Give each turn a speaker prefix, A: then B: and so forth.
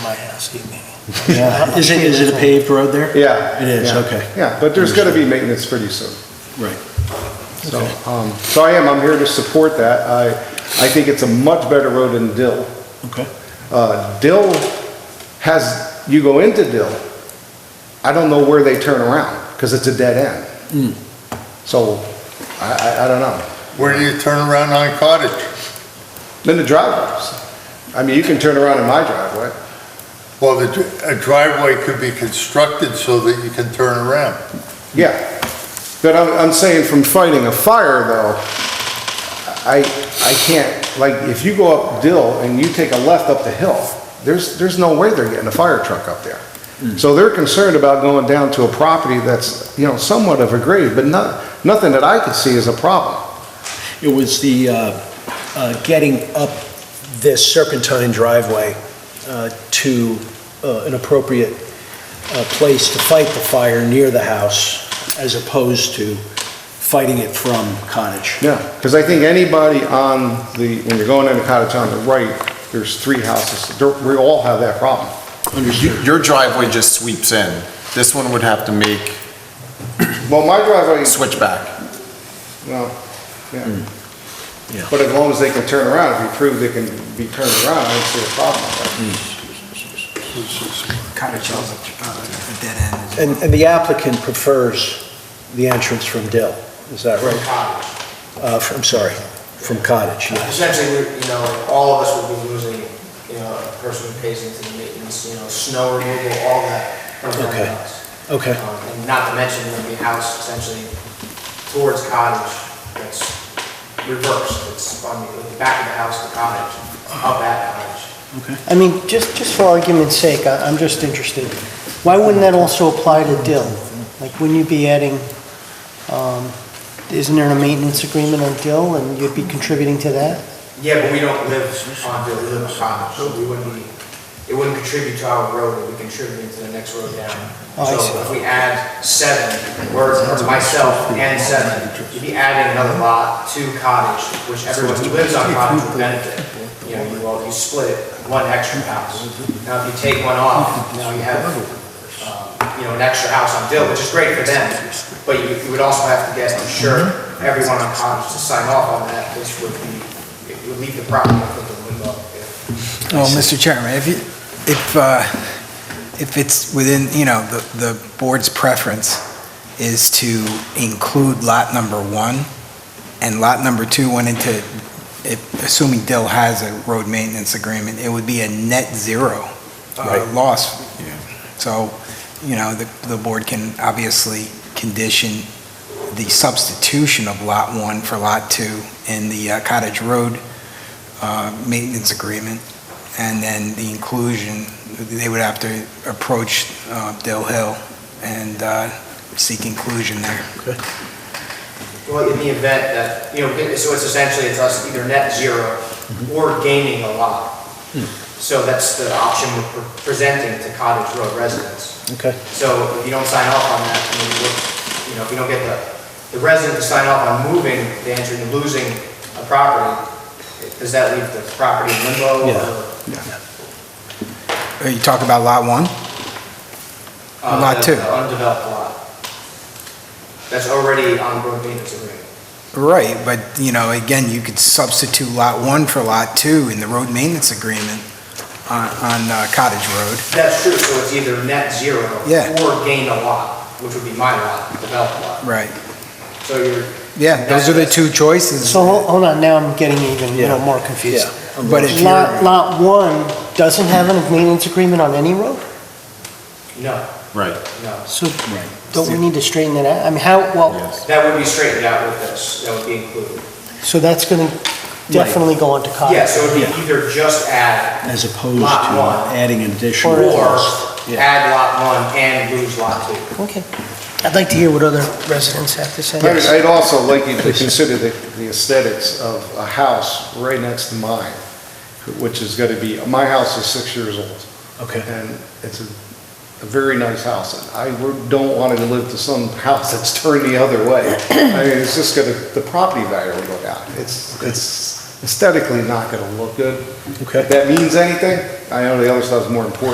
A: by asking me. Is it, is it a paved road there?
B: Yeah.
A: It is,
B: yeah.
A: okay.
B: Yeah, but there's gonna be maintenance pretty soon.
A: Right.
B: So, um, so I am, I'm here to support that. I, I think it's a much better road than Dill.
A: Okay.
B: Uh, Dill has, you go into Dill, I don't know where they turn around, because it's a dead end.
A: Hmm.
B: So, I, I, I don't know.
C: Where do you turn around on Cottage?
B: Then the driveways, I mean, you can turn around in my driveway.
C: Well, the dr- a driveway could be constructed so that you can turn around.
B: Yeah, but I'm, I'm saying from fighting a fire though, I, I can't, like, if you go up Dill and you take a left up the hill, there's, there's no way they're getting a fire truck up there. So they're concerned about going down to a property that's, you know, somewhat of a grave, but not, nothing that I could see is a problem.
A: It was the, uh, uh, getting up this serpentine driveway uh, to uh, an appropriate uh, place to fight the fire near the house as opposed to fighting it from cottage.
B: Yeah, because I think anybody on the, when you're going into cottage on the right, there's three houses, They're- we all have that problem.
D: You- Your driveway just sweeps in. This one would have to make
B: Well, my driveway.
D: switchback.
B: Well, yeah.
A: Yeah.
B: But as long as they can turn around, if you prove they can be turned around, I don't see a problem with
E: cottage is
A: uh,
E: a dead end.
A: And, and the applicant prefers the entrance from Dill, is that right?
F: Cottage.
A: Uh, from- I'm sorry, from cottage, yeah.
F: Essentially, we're- you know, like, all of us would be losing, you know, a person who pays into the maintenance, you know, snow removal, all that from the
A: Okay.
F: house.
A: Okay.
F: Um, And not to mention, there'd be a house essentially towards cottage that's reversed, it's on the, the back of the house, the cottage, up at cottage.
G: I mean, just, just for argument's sake, I- I'm just interested, why wouldn't that also apply to Dill? Like, wouldn't you be adding, um, isn't there a maintenance agreement on Dill, and you'd be contributing to that?
F: Yeah, but we don't live on, Dill, we live on cottage, so we wouldn't be, it wouldn't contribute to our road, it would contribute to the next road down.
G: Oh, I see.
F: So if we add seven, or or myself and seven, you'd be adding another lot to cottage, which everyone who lives on cottage would benefit. You know, you, well, you split one extra house. Now, if you take one off, now you have, um, you know, an extra house on Dill, which is great for them, but you, you would also have to get, I'm sure, everyone on cottage to sign off on that, which would be, it would leave the property for the limbo. if-
E: Well, Mr. Chairman, if you, if, uh, if it's within, you know, the, the board's preference is to include lot number one, and lot number two went into, if- assuming Dill has a road maintenance agreement, it would be a net zero uh,
A: Right.
E: loss. So, you know, the, the board can obviously condition the substitution of lot one for lot two in the uh, Cottage Road uh, maintenance agreement, and then the inclusion, they would have to approach uh, Dill Hill and uh, seek inclusion there.
F: Well, in the event that, you know, so it's essentially, it's us either net zero or gaining a lot. So that's the option we're pre- presenting to Cottage Road residents.
A: Okay.
F: So if you don't sign off on that, I mean, we're- you know, if you don't get the, the resident to sign off on moving, the entry, losing a property, does that leave the property in limbo?
A: Yeah.
F: or-
E: Are Uh, you talking about Lot 1?
F: Uh,
E: Lot
F: the-
E: two.
F: the Undeveloped lot. That's already on road maintenance agreement.
E: Right, but, you know, again, you could substitute Lot 1 for Lot 2 in the road maintenance agreement on on uh, Cottage Road.
F: That's true, so it's either net zero
E: Yeah.
F: or gain a lot, which would be my lot, developed lot.
E: Right.
F: So you're,
E: Yeah, those are the two choices.
G: So, hol- hold on, now I'm getting even, you know, more confused.
E: But if
G: Lot,
E: you're,
G: lot one doesn't have a maintenance agreement on any road?
F: no,
D: Right.
F: no.
G: So, don't we need to straighten that out? I mean, how, well,
F: That would be straightened out with this, that would be included.
G: so that's gonna definitely go onto cottage?
F: Yeah, so it would be either just add
A: As opposed to
F: Lot one.
A: adding an additional
F: or
A: cost. Yeah.
F: add lot one and lose lot two.
G: Okay. I'd like to hear what other residents have to say.
B: that. I'd- I'd also like you to consider the the aesthetics of a house right next to mine, which is gonna be, my house is six years old,
A: Okay,
B: and it's a a very nice house, and I would- don't want to live to some house that's turned the other way. I mean, it's just gonna, the property value will go down. It's, it's aesthetically not gonna look good.
A: okay.
B: If that means anything, I know the other stuff's more important.